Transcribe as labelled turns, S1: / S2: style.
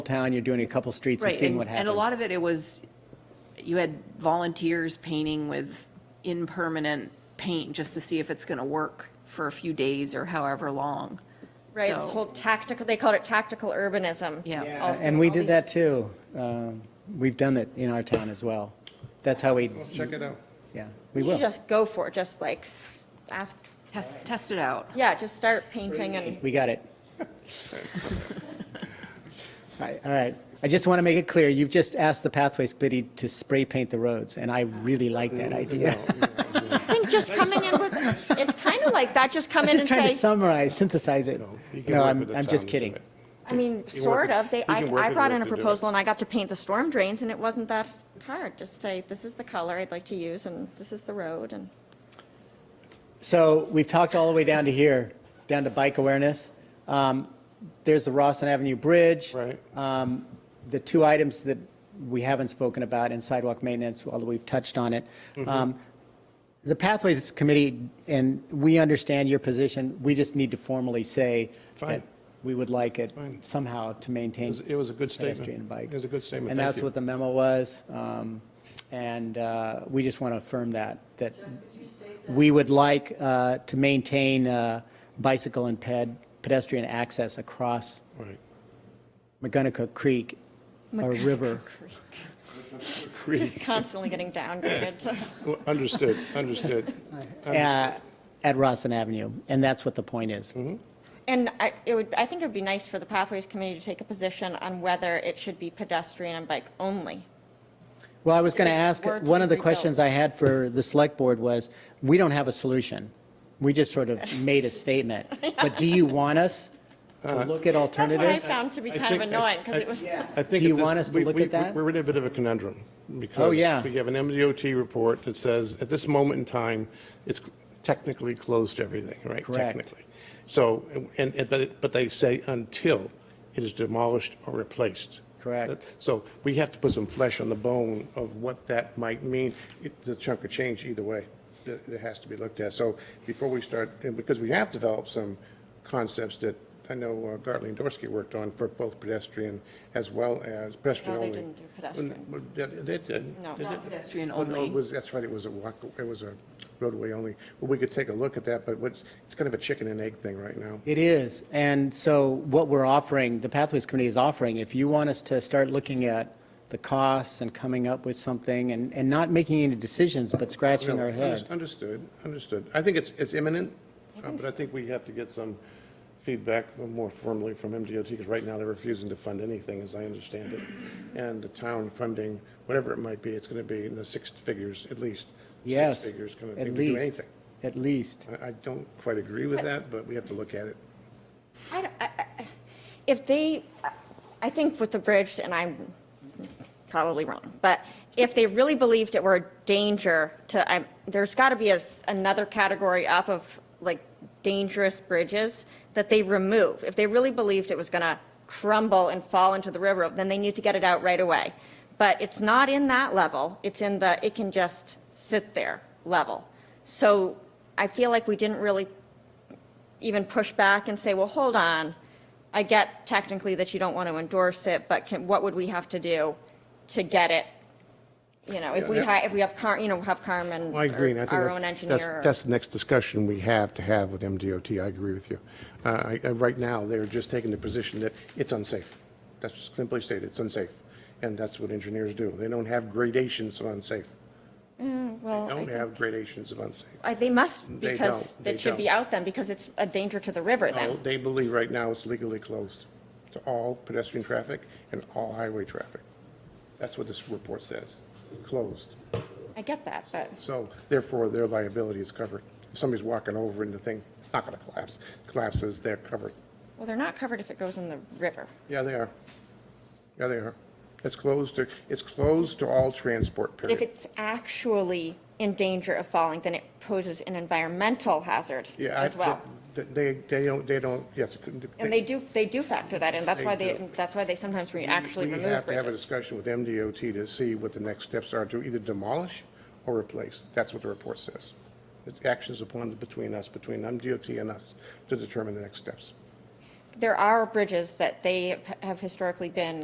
S1: town, you're doing a couple streets and
S2: Right,
S1: seeing
S2: and,
S1: what happens.
S2: and a lot of it, it was, you had volunteers painting with impermanent paint just to see if it's gonna work for a few days or however long.
S3: Right, this
S2: So-
S3: whole tactical, they called it tactical urbanism.
S2: Yeah. Yeah,
S3: also.
S1: And we
S3: All
S1: did
S3: these-
S1: that too. Um, We've done it in our town as well. That's how we,
S4: Well, check it out.
S1: yeah, we
S3: You should
S1: will.
S3: just go for it, just like, ask,
S2: Test, test it out.
S3: yeah, just start painting and,
S1: We got it. I- All right. I just want to make it clear, you've just asked the Pathways Committee to spray paint the roads, and I really like that idea.
S3: I think just coming in with, it's kind of like that, just come
S1: I'm
S3: in
S1: just
S3: and
S1: trying to
S3: say,
S1: summarize, synthesize it.
S4: You can
S1: No,
S4: work
S1: I'm,
S4: with the
S1: I'm
S4: town
S1: just
S4: to do
S1: kidding.
S4: it.
S3: I mean,
S4: You
S3: sort
S4: work-
S3: of, they,
S4: you
S3: I,
S4: can work
S3: I
S4: it
S3: brought in
S4: with
S3: a
S4: to do it.
S3: proposal and I got to paint the storm drains and it wasn't that hard, just say, this is the color I'd like to use and this is the road and.
S1: So we've talked all the way down to here, down to bike awareness. Um, There's the Rosslyn Avenue Bridge.
S4: Right.
S1: Um, The two items that we haven't spoken about in sidewalk maintenance, although we've touched on it.
S4: Mm-hmm.
S1: Um, The Pathways Committee, and we understand your position, we just need to formally say that
S4: Fine.
S1: we would like it
S4: Fine.
S1: somehow to maintain.
S4: It was- it was a good statement.
S1: Pedestrian and bike.
S4: It was a good statement.
S1: And
S4: Thank
S1: that's
S4: you.
S1: what the memo was. um, And uh, we just want to affirm that, that we would like uh, to maintain uh, bicycle and ped, pedestrian access across
S4: Right.
S1: McGonagall Creek or river.
S3: Just constantly getting downgraded to.
S4: Well, Understood, understood.
S1: uh, at Rosslyn Avenue. And that's what the point is.
S4: Mm-hmm.
S3: And I, it would, I think it would be nice for the Pathways Committee to take a position on whether it should be pedestrian and bike only.
S1: Well, I was going to
S3: If it
S1: ask,
S3: were to
S1: one of the
S3: be rebuilt.
S1: questions I had for the select board was, we don't have a solution. We just sort of made a statement. But do you want us
S4: Uh-huh.
S1: to look at
S3: That's what I
S1: alternatives?
S3: found to be
S4: I
S3: kind of
S4: think- I-
S3: annoying, because
S4: I-
S3: it was,
S4: I think
S1: Do you
S4: at this-
S1: want us to
S4: we-
S1: look
S4: we-
S1: at that? Oh,
S4: We're in a bit of a conundrum.
S1: yeah.
S4: Because we have an MDOT report that says, at this moment in time, it's technically closed to everything, right?
S1: Correct.
S4: Technically. So, and, and- but, it- but they say until it is demolished or replaced.
S1: Correct.
S4: That- So we have to put some flesh on the bone of what that might mean. It's a chunk of change either way that that has to be looked at. So before we start, and because we have developed some concepts that I know uh, Gartley and Dorsey worked on for both pedestrian as well as pedestrian
S3: No, they
S4: only.
S3: didn't do pedestrian.
S4: Well, They they did.
S3: No.
S4: They
S3: No,
S4: did.
S2: pedestrian
S4: Oh, no,
S2: only.
S4: it was- That's right, it was a walk, it was a roadway only. Well, we could take a look at that, but what's, it's kind of a chicken and egg thing right now.
S1: It is. And so what we're offering, the Pathways Committee is offering, if you want us to start looking at the costs and coming up with something and, and not making any decisions, but scratching
S4: No,
S1: our
S4: unders-
S1: head.
S4: Understood, understood. I think it's, it's imminent, uh, but I think we have to get some feedback more formally from MDOT, because right now they're refusing to fund anything, as I understand it. And the town funding, whatever it might be, it's going to be in the six figures at least.
S1: Yes.
S4: Six figures kind of
S1: at
S4: thing to do
S1: least,
S4: anything.
S1: At least.
S4: I, I don't quite agree with that, but we have to look at it.
S3: I, don't- I- I- if they, I think with the bridge, and I'm probably wrong, but if they really believed it were a danger to, I, there's got to be a s another category up of like dangerous bridges that they remove. If they really believed it was going to crumble and fall into the river, then they need to get it out right away. But it's not in that level. It's in the, it can just sit there level. So I feel like we didn't really even push back and say, well, hold on, I get technically that you don't want to endorse it, but can, what would we have to do to get it? You know, if we
S4: Yeah.
S3: hi, if we have Car, you know, have Carmen,
S4: I agree, and I
S3: or
S4: think
S3: our own
S4: that's- that's,
S3: engineer. or-
S4: that's the next discussion we have to have with MDOT, I agree with you. Uh, I- I- Right now, they're just taking the position that it's unsafe. That's just simply stated, it's unsafe, and that's what engineers do. They don't have gradations of unsafe. They
S3: Well, Oh, I
S4: don't
S3: think-
S4: have gradations of unsafe.
S3: I- They must,
S4: They
S3: because
S4: don't, they
S3: it should be
S4: don't.
S3: out then, because it's a danger to the river
S4: No,
S3: then.
S4: They believe right now it's legally closed to all pedestrian traffic and all highway traffic. That's what this report says, closed.
S3: I get that, but
S4: So therefore, their liability is covered. If somebody's walking over and the thing, it's not going to collapse, collapses, they're covered.
S3: well, they're not covered if it goes in the river.
S4: Yeah, they are. Yeah, they are. It's closed to, it's closed to all transport,
S3: But if
S4: period.
S3: it's actually in danger of falling, then it poses an environmental hazard
S4: Yeah, I-
S3: as well.
S4: th- They, they don't, they don't, yes, it couldn't.
S3: And they do, they do factor that in. That's why
S4: They
S3: they,
S4: do.
S3: that's why they sometimes re- actually
S4: We
S3: remove
S4: have to have a
S3: bridges.
S4: discussion with MDOT to see what the next steps are to either demolish or replace. That's what the report says. It's actions upon, between us, between MDOT and us, to determine the next steps.
S3: There are bridges that they have historically been